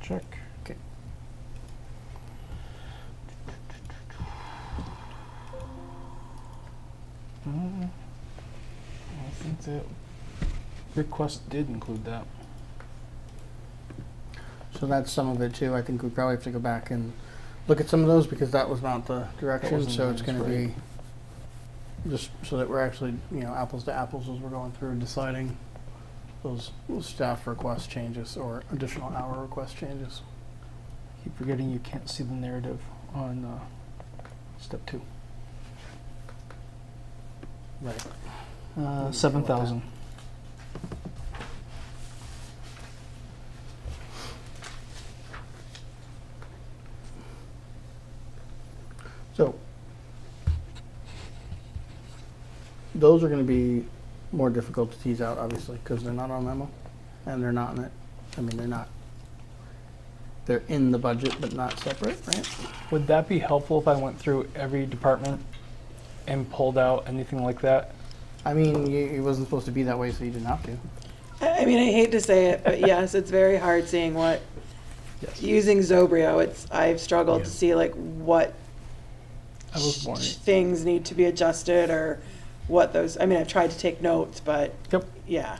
check. Okay. Uh, I think that request did include that. So that's some of it too. I think we probably have to go back and look at some of those because that was not the direction, wasn't so the it's gonna be direction, just so that we're actually, you know, apples to apples as we're going through and deciding those staff request changes or additional hour request changes. Keep forgetting you can't see the narrative on uh, step two. Right. Uh, that. seven thousand. So those are gonna be more difficult to tease out, obviously, because they're not on memo and they're not in it. I mean, they're not, they're in the budget, but not separate, right? Would that be helpful if I went through every department and pulled out anything like that? I mean, you, it wasn't supposed to be that way, so you didn't have to. Mm-hmm. I I mean, I hate to say it, but yes, it's very hard seeing what, Yes. using Zobrio, it's, I've struggled to Yeah. see like what I was born. sh- things need to be adjusted or what those, I mean, I've tried to take notes, but Yep. yeah.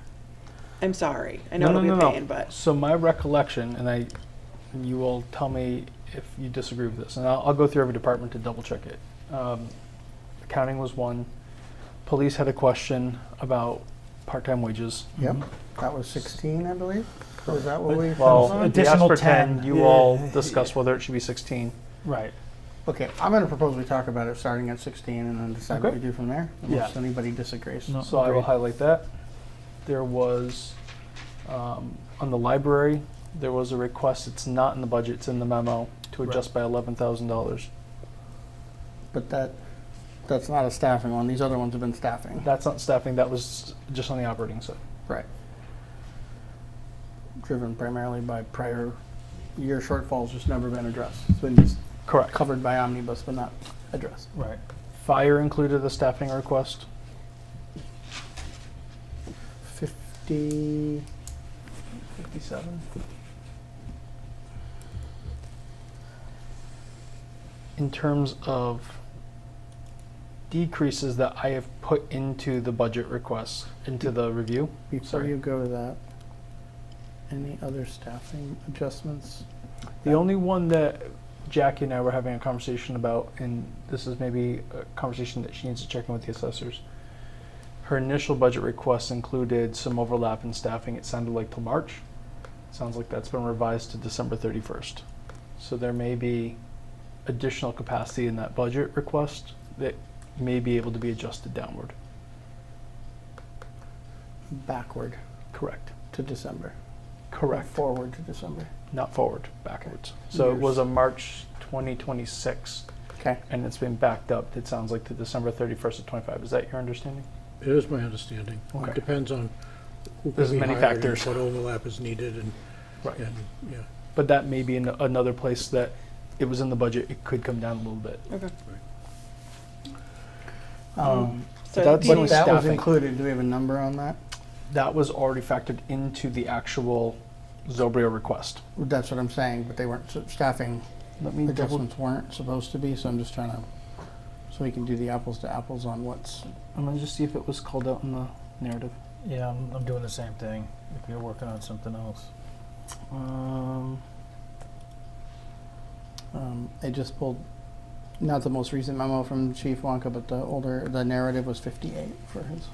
I'm sorry. I know it'll be a pain, but So my recollection, and I, you will tell me if you disagree with this, and I'll, I'll go through every department to double check it. Um, accounting was one. Police had a question about part-time wages. Yep, that was sixteen, I believe. Was that what we? Well, they asked Oh, Additional for ten. 10, You yeah. all discussed whether it should be sixteen. Right. Okay, I'm gonna propose we talk about it starting at sixteen and then decide what Okay. we do from there, unless anybody disagrees. No. So I will Agreed. highlight that. There was, um, on the library, there was a request, it's not in the budget, it's in the memo, to Right. adjust by eleven thousand dollars. But that, that's not a staffing one. These other ones have been staffing. That's not staffing, that was just on the operating side. Right. Driven primarily by prior year shortfalls, just never been addressed. It's been just Correct. covered by omnibus, but not addressed. Right. Fire included a staffing request, Fifty, fifty-seven. In terms of decreases that I have put into the budget requests, into the review, before Sorry. you go to that, any other staffing adjustments? The only one that Jackie and I were having a conversation about, and this is maybe a conversation that she needs to check in with the assessors. Her initial budget request included some overlap in staffing. It sounded like till March. Sounds like that's been revised to December 31st. So there may be additional capacity in that budget request that may be able to be adjusted downward. Backward Correct. to December. Correct. Forward to December. Not forward, backwards. So it was a March 2026 Okay. and it's been backed up, it sounds like, to December 31st of 25. Is that your understanding? It is my understanding. Okay. It depends on who There's can be many hired and factors. what overlap is needed and, Right. and, yeah. But that may be in another place that it was in the budget, it could come down a little bit. Um, so that's do what that- but you- that was staffing. included. Do we have a number on that? That was already factored into the actual Zobrio request. That's what I'm saying, but they weren't, so staffing Let me double, adjustments weren't supposed to be, so I'm just trying to, so we can do the apples to apples on what's, I'm gonna just see if it was called out in the narrative. Yeah, I'm, I'm doing the same thing. If you're working on something else, Um, um, I just pulled, not the most recent memo from Chief Wonka, but the older, the narrative was fifty-eight for his,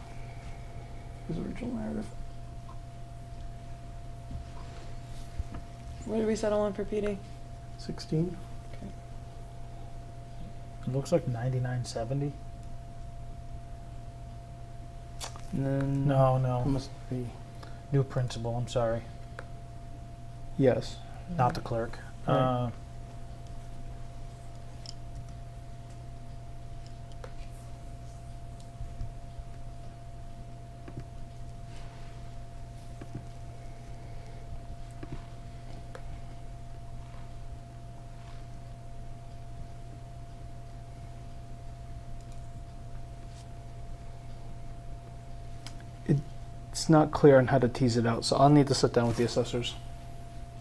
his original narrative. What did we settle on for PD? Sixteen? it looks like 99.70. and then. No, no, Must be, new principal. I'm sorry, Yes. not the clerk. Right. Uh, It's not clear on how to tease it out, so I'll need to sit down with the assessors